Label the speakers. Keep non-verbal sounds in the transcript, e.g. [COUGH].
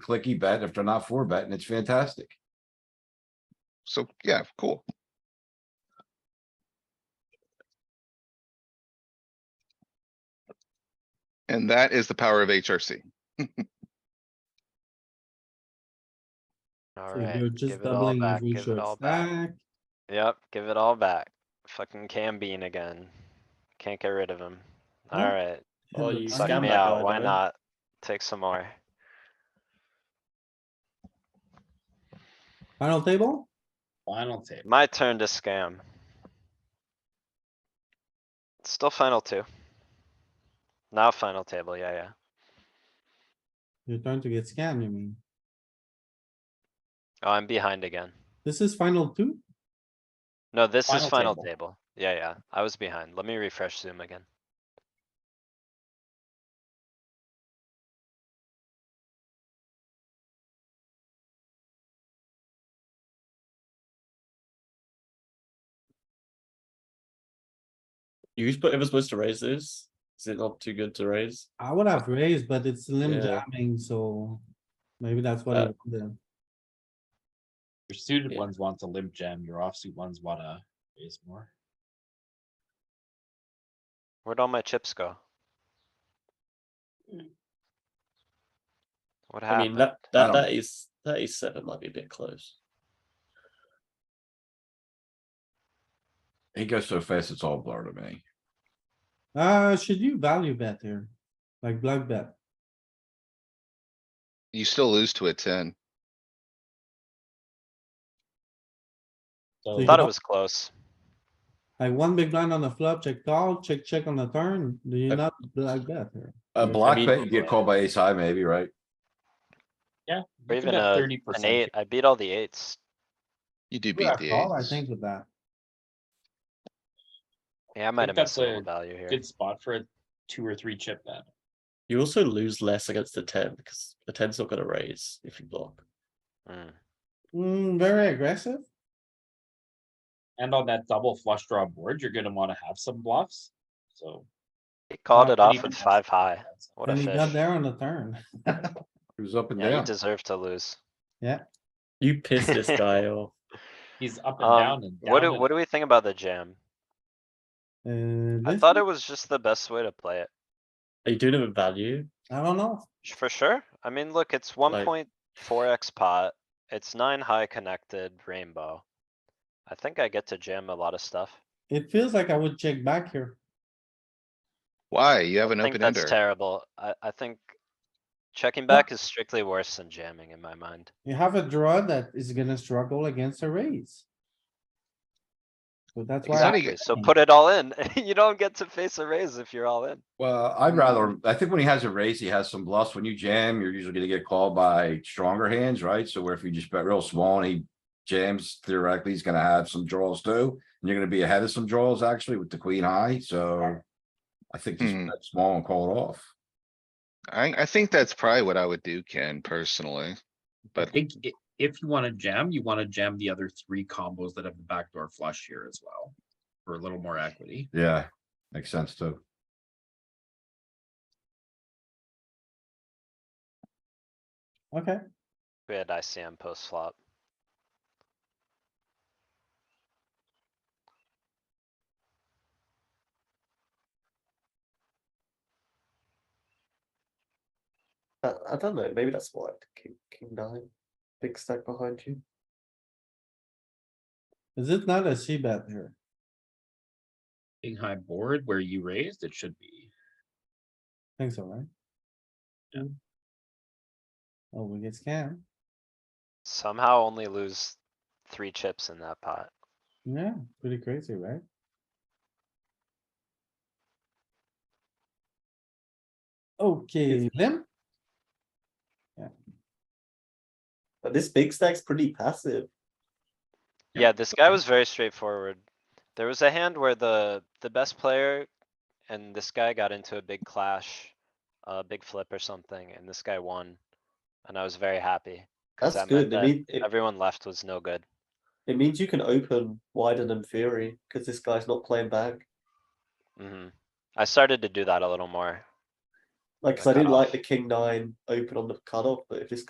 Speaker 1: clicky bet. If they're not four betting, it's fantastic.
Speaker 2: So, yeah, cool. And that is the power of HRC.
Speaker 3: All
Speaker 4: So
Speaker 3: right,
Speaker 4: You're
Speaker 3: give
Speaker 4: just
Speaker 3: it all
Speaker 4: doubling Ah.
Speaker 3: back,
Speaker 4: every
Speaker 3: give it all
Speaker 4: short
Speaker 3: back.
Speaker 4: stack.
Speaker 3: Yep, give it all back. Fucking Cam Bean again. Can't get rid of him.
Speaker 4: Huh?
Speaker 3: All right,
Speaker 5: Oh,
Speaker 4: And
Speaker 5: you
Speaker 4: the
Speaker 3: suck
Speaker 5: scam
Speaker 3: me
Speaker 5: that guy,
Speaker 3: out.
Speaker 5: by
Speaker 3: Why
Speaker 5: the way.
Speaker 3: not? Take some more.
Speaker 4: Final table?
Speaker 5: Final table.
Speaker 3: My turn to scam. Still final two. Now final table, yeah, yeah.
Speaker 4: You're trying to get scammed, you mean?
Speaker 3: Oh, I'm behind again.
Speaker 4: This is final two?
Speaker 3: No, this is
Speaker 5: Final
Speaker 3: final
Speaker 5: table.
Speaker 3: table. Yeah, yeah, I was behind. Let me refresh Zoom again.
Speaker 5: You sp- ever supposed to raise this? Is it not too good to raise?
Speaker 4: I would have raised, but it's limb
Speaker 5: Yeah.
Speaker 4: jamming, so maybe that's what
Speaker 5: Uh,
Speaker 4: it did.
Speaker 5: Your suited
Speaker 4: Yeah.
Speaker 5: ones want to limp jam, your offsuit ones wanna raise more.
Speaker 3: Where'd all my chips go? What
Speaker 6: Ah,
Speaker 5: I mean,
Speaker 3: happened?
Speaker 5: that, that,
Speaker 1: don't-
Speaker 5: that is, that is seven might be a bit close.
Speaker 1: He goes so fast, it's all blur to me.
Speaker 4: Uh, should you value bet here? Like block bet?
Speaker 2: You still lose to a ten.
Speaker 5: So
Speaker 4: you
Speaker 3: Thought it
Speaker 4: don't-
Speaker 3: was close.
Speaker 4: Like one big blind on the flop, check call, check, check on the turn. Do
Speaker 5: Uh,
Speaker 4: you not block bet here?
Speaker 1: A
Speaker 5: Mm, I
Speaker 1: block
Speaker 5: mean-
Speaker 1: bet, you get called by ace high maybe, right?
Speaker 3: Or
Speaker 5: you could
Speaker 3: even a,
Speaker 5: have 30%
Speaker 3: an eight. I beat all the eights.
Speaker 2: You do
Speaker 4: Would
Speaker 2: beat
Speaker 4: have
Speaker 2: the
Speaker 4: called, I
Speaker 2: eights.
Speaker 4: think with that.
Speaker 3: Yeah, I might have
Speaker 5: that's
Speaker 3: missed a little
Speaker 5: a
Speaker 3: value here.
Speaker 5: Good spot for a two or three chip bet.
Speaker 6: You also lose less against the ten because the ten's not gonna raise if you block.
Speaker 3: Mm.
Speaker 4: Hmm, very aggressive.
Speaker 5: And on that double flush draw board, you're gonna wanna have some bluffs, so.
Speaker 3: He called it
Speaker 5: not
Speaker 3: off
Speaker 5: even
Speaker 3: with
Speaker 5: have
Speaker 3: five
Speaker 5: some
Speaker 3: high.
Speaker 5: bets.
Speaker 3: What a
Speaker 4: And he got
Speaker 3: fish.
Speaker 4: there on the turn.
Speaker 1: He was up and
Speaker 3: Yeah, you
Speaker 1: down.
Speaker 3: deserve to lose.
Speaker 6: You piss [LAUGHS] this guy off.
Speaker 5: He's up and down
Speaker 3: Um,
Speaker 5: and
Speaker 3: what
Speaker 5: down.
Speaker 3: do,
Speaker 5: and-
Speaker 3: what do we think about the jam?
Speaker 4: Uh,
Speaker 3: I
Speaker 4: this
Speaker 3: thought
Speaker 4: is-
Speaker 3: it was just the best way to play it.
Speaker 6: Are you doing it with value?
Speaker 4: I don't know.
Speaker 3: For sure. I mean, look, it's one point four X pot. It's nine high connected rainbow. I think I get to jam a lot of stuff.
Speaker 4: It feels like I would check back here.
Speaker 2: Why? You have an
Speaker 3: I think
Speaker 2: open
Speaker 3: that's
Speaker 2: ender.
Speaker 3: terrible. I, I think checking back is strictly worse than jamming in my mind.
Speaker 4: You have a draw that is gonna struggle against a raise. So that's why, I-
Speaker 2: Exactly.
Speaker 3: Exactly. So put it all in. [LAUGHS] You don't get to face a raise if you're all in.
Speaker 1: Well, I'd rather, I think when he has a raise, he has some bluffs. When you jam, you're usually gonna get called by stronger hands, right? So where if you just bet real small and he jams theoretically, he's gonna have some draws too. And you're gonna be ahead of some draws actually with the queen high, so. I think just
Speaker 2: Hmm.
Speaker 1: bet small and call it off.
Speaker 2: I, I think that's probably what I would do, Ken, personally.
Speaker 5: I
Speaker 2: But
Speaker 5: think i- if you wanna jam, you wanna jam the other three combos that have the backdoor flush here as well. For a little more equity.
Speaker 1: Yeah, makes sense too.
Speaker 4: okay,
Speaker 3: We had ICM post flop.
Speaker 6: I, I don't know. Maybe that's why king, king nine, big stack behind you.
Speaker 4: is it not a C bet here?
Speaker 5: King high board where you raised, it should be.
Speaker 4: Think so, right?
Speaker 5: Yeah.
Speaker 4: Oh, we get scammed,
Speaker 3: Somehow only lose three chips in that pot.
Speaker 4: yeah, pretty crazy, right? Okay, limp,
Speaker 6: But this big stack's pretty passive.
Speaker 5: Yep.
Speaker 3: Yeah, this guy was very straightforward. There was a hand where the, the best player and this guy got into a big clash, a big flip or something, and this guy won. And I was very happy. 'cause
Speaker 6: That's
Speaker 3: that meant
Speaker 6: good. It,
Speaker 3: that
Speaker 6: mean, it,
Speaker 3: Everyone left was no good.
Speaker 6: it means you can open wider than Fury because this guy's not playing back.
Speaker 3: hmm I started to do that a little more.
Speaker 6: Like, 'cause I
Speaker 3: Like
Speaker 6: didn't like
Speaker 3: cutoff.
Speaker 6: the king nine open on the cutoff, but if this